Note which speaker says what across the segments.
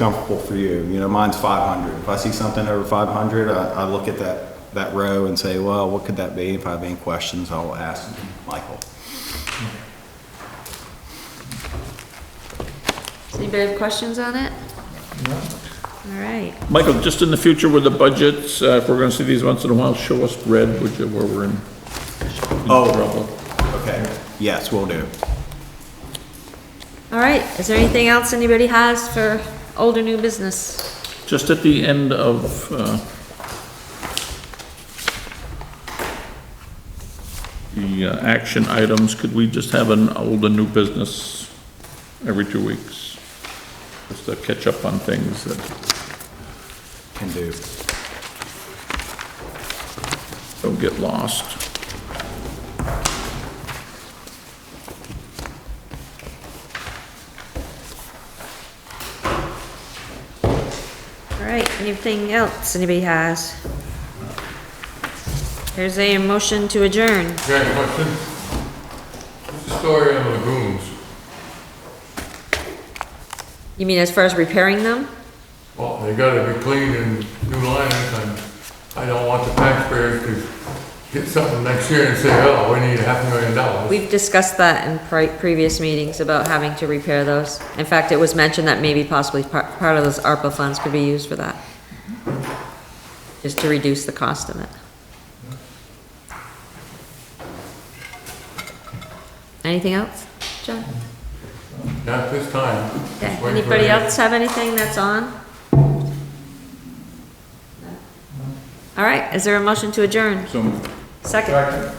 Speaker 1: comfortable for you. You know, mine's 500. If I see something over 500, I, I look at that, that row and say, well, what could that be? If I have any questions, I'll ask Michael.
Speaker 2: Does anybody have questions on it? All right,
Speaker 3: Michael, just in the future with the budgets, uh, if we're gonna see these once in a while, show us red, which is where we're in in
Speaker 1: Oh.
Speaker 3: trouble.
Speaker 1: Okay. Yes, we will do.
Speaker 2: all right, is there anything else anybody has for older new business?
Speaker 3: Just at the end of, uh, the uh, action items, could we just have an old and new business every two weeks? Just to catch up on things that
Speaker 1: Can do.
Speaker 3: don't get lost.
Speaker 2: All right, anything else anybody has? There's a motion to adjourn.
Speaker 4: Got a question? What's the story on lagoons?
Speaker 2: You mean as far as repairing them?
Speaker 4: Well, they gotta be cleaned and new linings, and I don't want the taxpayers to get something next year and say, oh, we need a half million dollars.
Speaker 2: We've discussed that in pri- previous meetings about having to repair those. In fact, it was mentioned that maybe possibly part, part of those ARPA funds could be used for that. Just to reduce the cost of it. Anything else, John?
Speaker 4: Not this time. Just
Speaker 2: Okay,
Speaker 4: wait for
Speaker 2: anybody
Speaker 4: it.
Speaker 2: else have anything that's on? All right, is there a motion to adjourn?
Speaker 3: So
Speaker 2: Second,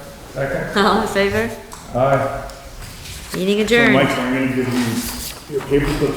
Speaker 5: Second?
Speaker 2: all in favor?
Speaker 5: Aye.
Speaker 2: Meeting
Speaker 5: So
Speaker 2: adjourned.
Speaker 5: Mike, I'm gonna give you your paperclip